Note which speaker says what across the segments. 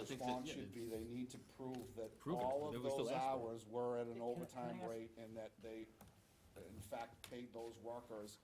Speaker 1: response
Speaker 2: yeah,
Speaker 1: should
Speaker 2: they-
Speaker 1: be they need to prove that
Speaker 2: Prove it.
Speaker 1: all
Speaker 2: That
Speaker 1: of
Speaker 2: was the
Speaker 1: those
Speaker 2: last one.
Speaker 1: hours were at an
Speaker 3: Can I- can I
Speaker 1: overtime
Speaker 3: ask-
Speaker 1: rate and that they, in fact, paid those workers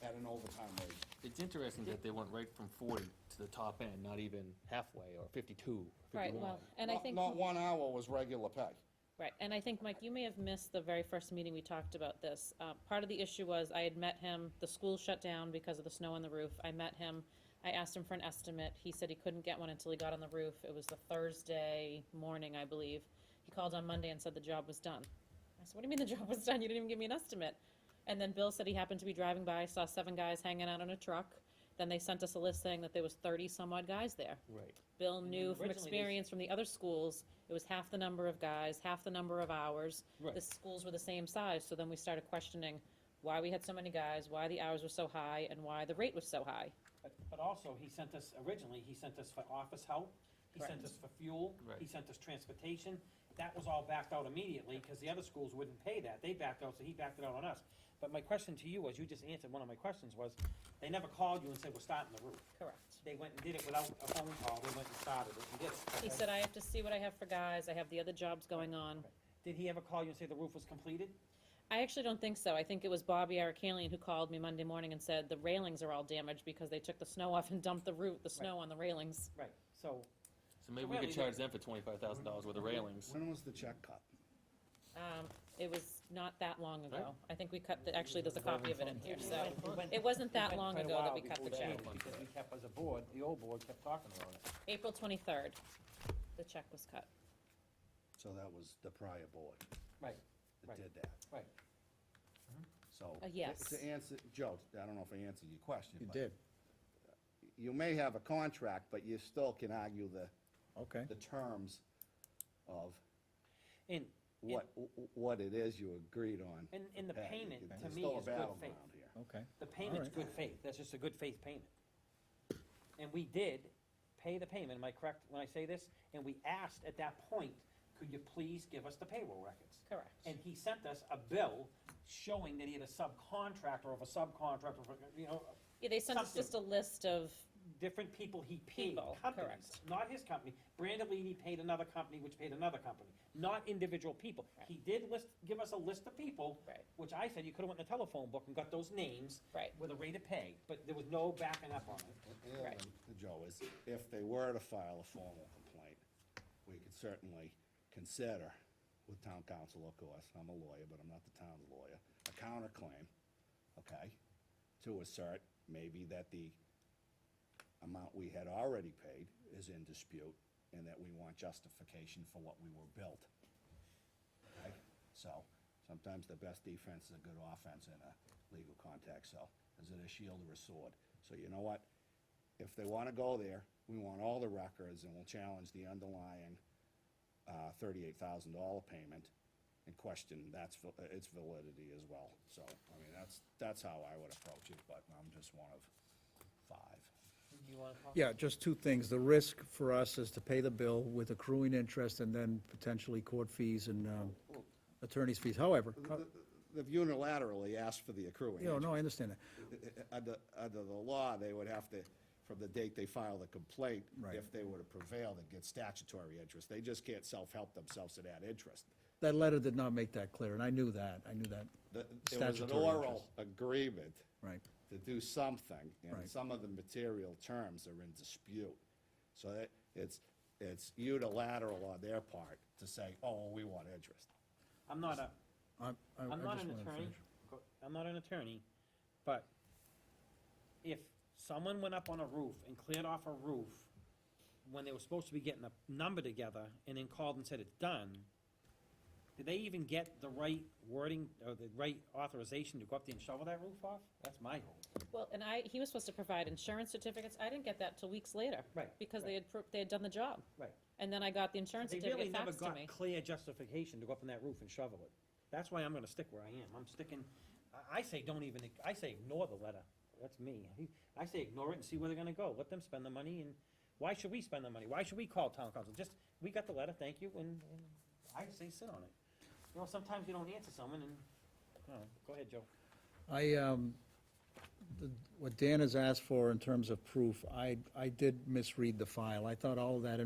Speaker 1: at an overtime rate.
Speaker 2: It's interesting that they went right from forty to the top end, not even halfway, or fifty-two,
Speaker 3: Right,
Speaker 2: fifty-one.
Speaker 3: well, and I
Speaker 1: Not-
Speaker 3: think,
Speaker 1: Not one hour was regular pay.
Speaker 3: right, and I think, Mike, you may have missed the very first meeting we talked about this. Uh, Part of the issue was I had met him, the school shut down because of the snow on the roof. I met him, I asked him for an estimate. He said he couldn't get one until he got on the roof. It was the Thursday morning, I believe. He called on Monday and said the job was done. I said, what do you mean the job was done? You didn't even give me an estimate. And then Bill said he happened to be driving by, saw seven guys hanging out on a truck. Then they sent us a list saying that there was thirty some odd guys there.
Speaker 2: Right.
Speaker 3: Bill
Speaker 2: then
Speaker 3: knew from
Speaker 2: originally they-
Speaker 3: experience from the other schools, it was half the number of guys, half the number of hours.
Speaker 2: Right.
Speaker 3: The schools were the same size, so then we started questioning why we had so many guys, why the hours were so high, and why the rate was so high.
Speaker 4: But, but also, he sent us, originally, he sent us for office help, he sent us for fuel, he
Speaker 2: Right.
Speaker 4: sent us transportation. That was all backed out immediately, because the other schools wouldn't pay that, they backed out, so he backed it out on us. But my question to you was, you just answered one of my questions, was, they never called you and said, we're starting the roof.
Speaker 3: Correct.
Speaker 4: They went and did it without a phone call, they went and started it and did it.
Speaker 3: He said, I have to see what I have for guys, I have the other jobs going on.
Speaker 4: Did he ever call you and say the roof was completed?
Speaker 3: I actually don't think so. I think it was Bobby Arakalian who called me Monday morning and said, the railings are all damaged because they took the snow off and dumped the root, the snow on the railings.
Speaker 4: Right, so,
Speaker 2: So maybe
Speaker 4: So
Speaker 2: we could
Speaker 4: really,
Speaker 2: charge them for twenty-five thousand dollars worth of railings.
Speaker 5: When was the check cut?
Speaker 3: Um, it was not that long ago.
Speaker 2: Right.
Speaker 3: I think we cut, the actually, there's a copy of it in here, so.
Speaker 4: It went-
Speaker 3: It wasn't that
Speaker 4: went
Speaker 3: long
Speaker 4: quite a
Speaker 3: ago that
Speaker 4: while
Speaker 3: we cut
Speaker 4: before
Speaker 3: the
Speaker 4: they
Speaker 3: check.
Speaker 4: did it, Because we kept, as a board, the old board kept talking about it.
Speaker 3: April twenty-third, the check was cut.
Speaker 5: So that was the prior board
Speaker 4: Right,
Speaker 5: that
Speaker 4: Right.
Speaker 5: did that.
Speaker 4: right.
Speaker 5: So.
Speaker 3: Uh, yes.
Speaker 5: To answer, Joe, I don't know if I answered your question. You did. You may have a contract, but you still can argue the. Okay. The terms of
Speaker 4: And,
Speaker 5: what, what it is you agreed on.
Speaker 4: and, and the
Speaker 5: Yeah,
Speaker 4: payment,
Speaker 5: it's
Speaker 4: to me,
Speaker 5: still a
Speaker 4: is good
Speaker 5: battleground
Speaker 4: faith.
Speaker 5: here.
Speaker 6: Okay.
Speaker 4: The payment's good faith, that's just a good faith payment. And we did pay the payment, am I correct when I say this? And we asked at that point, could you please give us the payroll records?
Speaker 3: Correct.
Speaker 4: And he sent us a bill showing that he had a subcontractor of a subcontractor, of a- you know,
Speaker 3: Yeah, they sent us
Speaker 4: Something.
Speaker 3: just a list of,
Speaker 4: different people he paid,
Speaker 3: People,
Speaker 4: companies, not his company. Brandolini paid another company, which paid another company, not individual people. He did list, give us a list of people,
Speaker 3: Right.
Speaker 4: which I said you could have went in the telephone book and got those names
Speaker 3: Right.
Speaker 4: with a rate of pay, but there was no backing up on it.
Speaker 5: And the other
Speaker 3: Right.
Speaker 5: thing, Joe, is if they were to file a formal complaint, we could certainly consider with town council, of course, I'm a lawyer, but I'm not the town's lawyer, a counterclaim, okay? To assert maybe that the amount we had already paid is in dispute and that we want justification for what we were billed. Okay? So sometimes the best defense is a good offense in a legal context, so is it a shield or a sword? So you know what? If they want to go there, we want all the records and we'll challenge the underlying uh, thirty-eight thousand dollar payment and question that's, val- uh, its validity as well. So, I mean, that's, that's how I would approach it, but I'm just one of five.
Speaker 4: Do you wanna talk?
Speaker 6: Yeah, just two things. The risk for us is to pay the bill with accruing interest and then potentially court fees and um, attorney's fees. However, co-
Speaker 5: They've unilaterally asked for the accruing.
Speaker 6: you know, no, I understand that.
Speaker 5: interest. Uh, Under, under the law, they would have to, from the date they file the complaint,
Speaker 6: Right.
Speaker 5: if they were to prevail, they'd get statutory interest. They just can't self-help themselves to that interest.
Speaker 6: That letter did not make that clear, and I knew that. I knew that.
Speaker 5: The- It was an
Speaker 6: Statutory
Speaker 5: oral
Speaker 6: interest.
Speaker 5: agreement
Speaker 6: Right.
Speaker 5: to do something, and
Speaker 6: Right.
Speaker 5: some of the material terms are in dispute. So that, it's, it's unilateral on their part to say, oh, we want interest.
Speaker 4: I'm not a,
Speaker 6: I'm I- I
Speaker 4: I'm not
Speaker 6: just
Speaker 4: an
Speaker 6: wanted to
Speaker 4: attorney,
Speaker 6: finish.
Speaker 4: Go- I'm not an attorney, but if someone went up on a roof and cleared off a roof when they were supposed to be getting a number together and then called and said it's done, did they even get the right wording or the right authorization to go up there and shovel that roof off? That's my hope.
Speaker 3: well, and I, he was supposed to provide insurance certificates. I didn't get that till weeks later.
Speaker 4: Right,
Speaker 3: Because they
Speaker 4: right.
Speaker 3: had, pro- they had done the job.
Speaker 4: Right.
Speaker 3: And then I got the insurance
Speaker 4: They really
Speaker 3: certificate
Speaker 4: never
Speaker 3: faxed to
Speaker 4: got
Speaker 3: me.
Speaker 4: clear justification to go up on that roof and shovel it. That's why I'm gonna stick where I am. I'm sticking, I, I say don't even, I say ignore the letter. That's me. I say ignore it and see where they're gonna go. Let them spend the money and, why should we spend the money? Why should we call town council? Just, we got the letter, thank you, and, and I say sit on it. You know, sometimes you don't answer someone and, oh, go ahead, Joe.
Speaker 6: I, um, the- what Dan has asked for in terms of proof, I, I did misread the file. I thought all of that